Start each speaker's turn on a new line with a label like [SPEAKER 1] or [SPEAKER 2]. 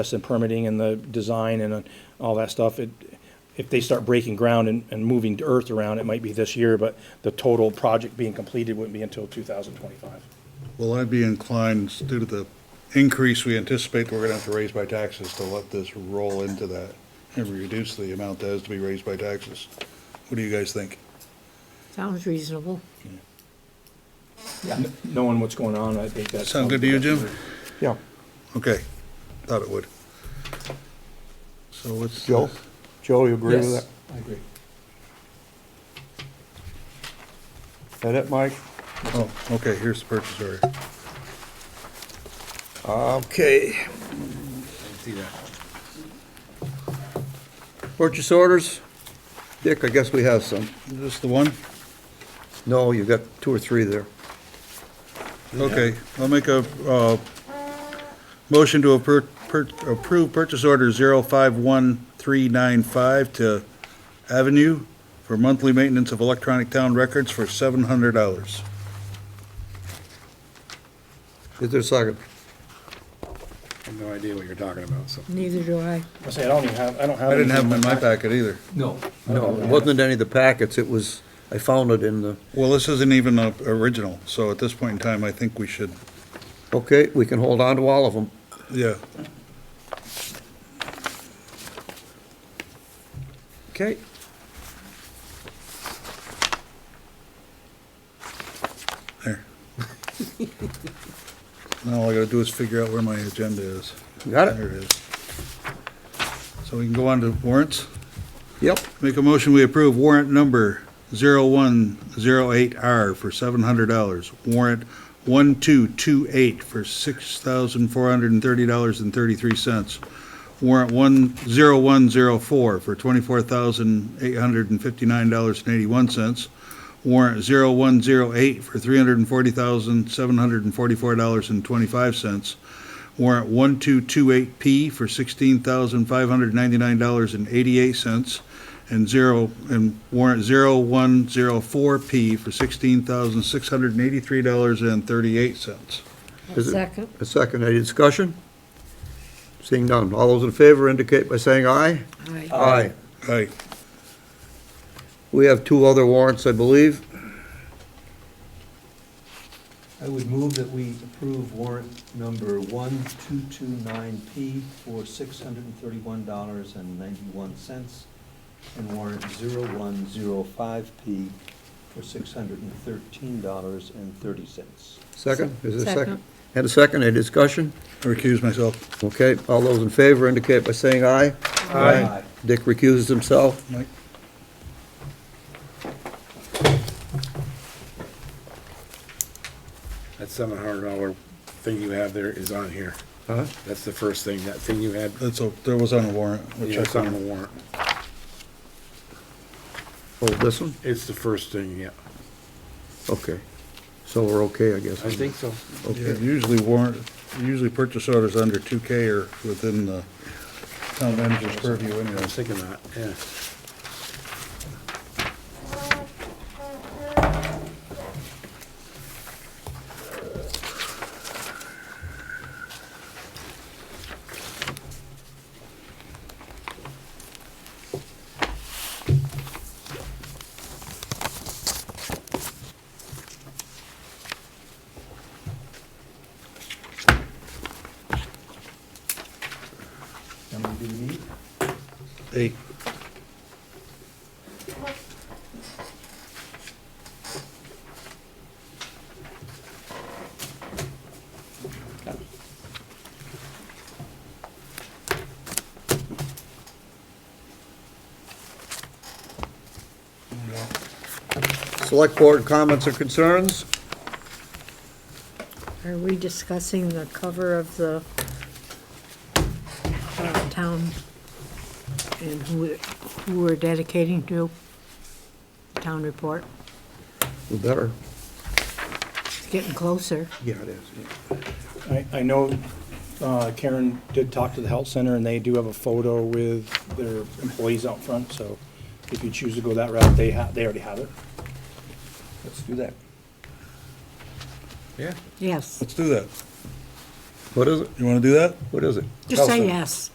[SPEAKER 1] process and permitting and the design and uh, all that stuff, it, if they start breaking ground and, and moving earth around, it might be this year, but the total project being completed wouldn't be until two thousand twenty-five.
[SPEAKER 2] Well, I'd be inclined, due to the increase we anticipate we're gonna have to raise by taxes, to let this roll into that and reduce the amount that has to be raised by taxes. What do you guys think?
[SPEAKER 3] Sounds reasonable.
[SPEAKER 1] Knowing what's going on, I think that's.
[SPEAKER 2] Sound good to you, Jim?
[SPEAKER 1] Yeah.
[SPEAKER 2] Okay, thought it would. So what's?
[SPEAKER 4] Joe? Joe, you agree with that?
[SPEAKER 1] Yes, I agree.
[SPEAKER 4] Is that it, Mike?
[SPEAKER 2] Oh, okay, here's the purchase order.
[SPEAKER 4] Okay. Purchase orders? Dick, I guess we have some.
[SPEAKER 2] Is this the one?
[SPEAKER 4] No, you got two or three there.
[SPEAKER 2] Okay, I'll make a, uh, motion to appro- pur- approve purchase order 051395 to Avenue for monthly maintenance of electronic town records for $700.
[SPEAKER 4] Is there a second?
[SPEAKER 5] I have no idea what you're talking about, so.
[SPEAKER 3] Neither do I.
[SPEAKER 1] I say, I don't even have, I don't have.
[SPEAKER 2] I didn't have them in my
[SPEAKER 1] anything
[SPEAKER 2] packet either.
[SPEAKER 6] No.
[SPEAKER 4] No, it wasn't in any of the packets, it was, I found it in the,
[SPEAKER 2] Well, this isn't even uh, original, so at this point in time, I think we should,
[SPEAKER 4] okay, we can hold on to all of them.
[SPEAKER 2] yeah.
[SPEAKER 4] Okay.
[SPEAKER 2] There. Now all I gotta do is figure out where my agenda is.
[SPEAKER 4] Got it?
[SPEAKER 2] There it is. So we can go on to warrants?
[SPEAKER 4] Yep.
[SPEAKER 2] Make a motion, we approve warrant number 0108R for $700. Warrant 1228 for $6,430.33. Warrant 10104 for $24,859.81. Warrant 0108 for $340,744.25. Warrant 1228P for $16,599.88 and zero, and warrant 0104P for $16,683.38.
[SPEAKER 4] Is it-
[SPEAKER 3] Second.
[SPEAKER 4] A second, any discussion? Seeing none, all those in favor indicate by saying aye.
[SPEAKER 3] Aye.
[SPEAKER 4] Aye.
[SPEAKER 2] Aye.
[SPEAKER 4] We have two other warrants, I believe.
[SPEAKER 6] I would move that we approve warrant number 1229P for $631.91 and warrant 0105P for $613.30.
[SPEAKER 4] Second, is there a second?
[SPEAKER 3] Second.
[SPEAKER 4] And a second, any discussion?
[SPEAKER 2] I recuse myself.
[SPEAKER 4] Okay, all those in favor indicate by saying aye.
[SPEAKER 6] Aye.
[SPEAKER 4] Dick recuses himself.
[SPEAKER 2] Mike?
[SPEAKER 5] That seven hundred dollar thing you have there is on here.
[SPEAKER 4] Huh?
[SPEAKER 5] That's the first thing, that thing you had,
[SPEAKER 2] That's, a- there was on a warrant. which I
[SPEAKER 5] that's on the warrant.
[SPEAKER 4] Oh, this one?
[SPEAKER 5] It's the first thing, yeah.
[SPEAKER 4] Okay. So we're okay, I guess.
[SPEAKER 5] I think so.
[SPEAKER 2] Yeah, Usually warrant, usually purchase orders under 2K are within the town manager's purview
[SPEAKER 5] I
[SPEAKER 2] anyway.
[SPEAKER 5] was thinking that, yeah.
[SPEAKER 6] Number do we need?
[SPEAKER 2] Eight.
[SPEAKER 4] Select board comments or concerns?
[SPEAKER 3] Are we discussing the cover of the uh, town and who, it- who we're dedicating to? Town report.
[SPEAKER 4] We better.
[SPEAKER 3] It's getting closer.
[SPEAKER 4] Yeah, it is.
[SPEAKER 1] I, I know uh, Karen did talk to the health center, and they do have a photo with their employees out front, so if you choose to go that route, they ha, they already have it. Let's do that.
[SPEAKER 5] Yeah.
[SPEAKER 3] Yes.
[SPEAKER 2] Let's do that.
[SPEAKER 4] What is it?
[SPEAKER 2] You want to do that?
[SPEAKER 4] What is it?
[SPEAKER 3] Just say
[SPEAKER 2] Nelson.
[SPEAKER 3] yes.